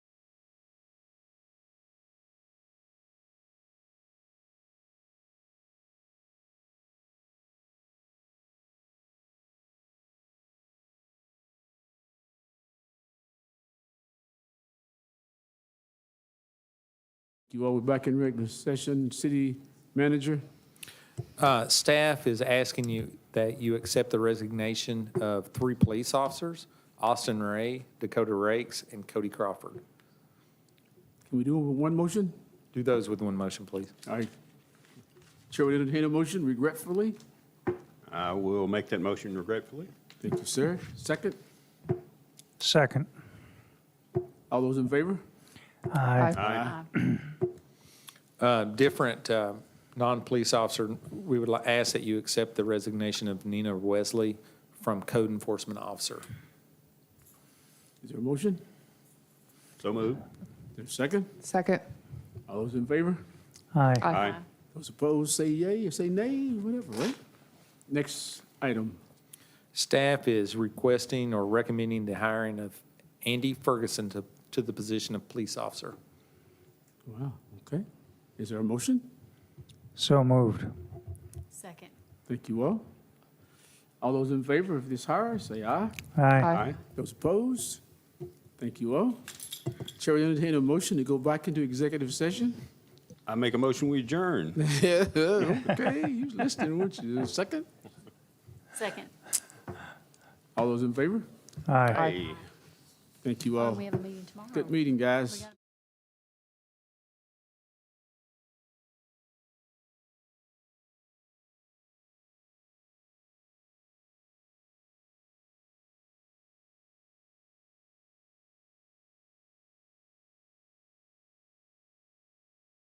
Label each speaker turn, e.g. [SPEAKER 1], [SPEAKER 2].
[SPEAKER 1] You all, we're back in regular session. City manager?
[SPEAKER 2] Uh, Staff is asking you that you accept the resignation of three police officers, Austin Ray, Dakota Rakes, and Cody Crawford.
[SPEAKER 1] Can we do it with one motion?
[SPEAKER 2] Do those with one motion, please.
[SPEAKER 1] All right. Chair would entertain a motion regretfully.
[SPEAKER 3] I will make that motion regretfully.
[SPEAKER 1] Thank you, sir. Second,
[SPEAKER 4] Second.
[SPEAKER 1] all those in favor?
[SPEAKER 4] Aye.
[SPEAKER 2] Uh, Different uh, non-police officer, we would li- ask that you accept the resignation of Nina Wesley from code enforcement officer.
[SPEAKER 1] Is there a motion?
[SPEAKER 3] So moved.
[SPEAKER 1] Is there a second?
[SPEAKER 5] Second.
[SPEAKER 1] All those in favor?
[SPEAKER 4] Aye.
[SPEAKER 1] Those opposed, say yea or say nay, whatever, right? Next item.
[SPEAKER 2] Staff is requesting or recommending the hiring of Andy Ferguson to to the position of police officer.
[SPEAKER 1] Wow, okay. Is there a motion?
[SPEAKER 4] So moved.
[SPEAKER 6] Second.
[SPEAKER 1] Thank you all. All those in favor of this hire, say aye.
[SPEAKER 4] Aye.
[SPEAKER 3] Aye.
[SPEAKER 1] Those opposed? Thank you all. Chair will entertain a motion to go back into executive session.
[SPEAKER 3] I make a motion, we adjourn.
[SPEAKER 1] Yeah, okay, you listening, weren't you? Second?
[SPEAKER 6] Second.
[SPEAKER 1] All those in favor?
[SPEAKER 4] Aye.
[SPEAKER 3] Aye.
[SPEAKER 1] Thank you
[SPEAKER 6] Oh,
[SPEAKER 1] all.
[SPEAKER 6] We have a meeting tomorrow.
[SPEAKER 1] Good meeting,
[SPEAKER 6] We
[SPEAKER 1] guys.
[SPEAKER 6] got-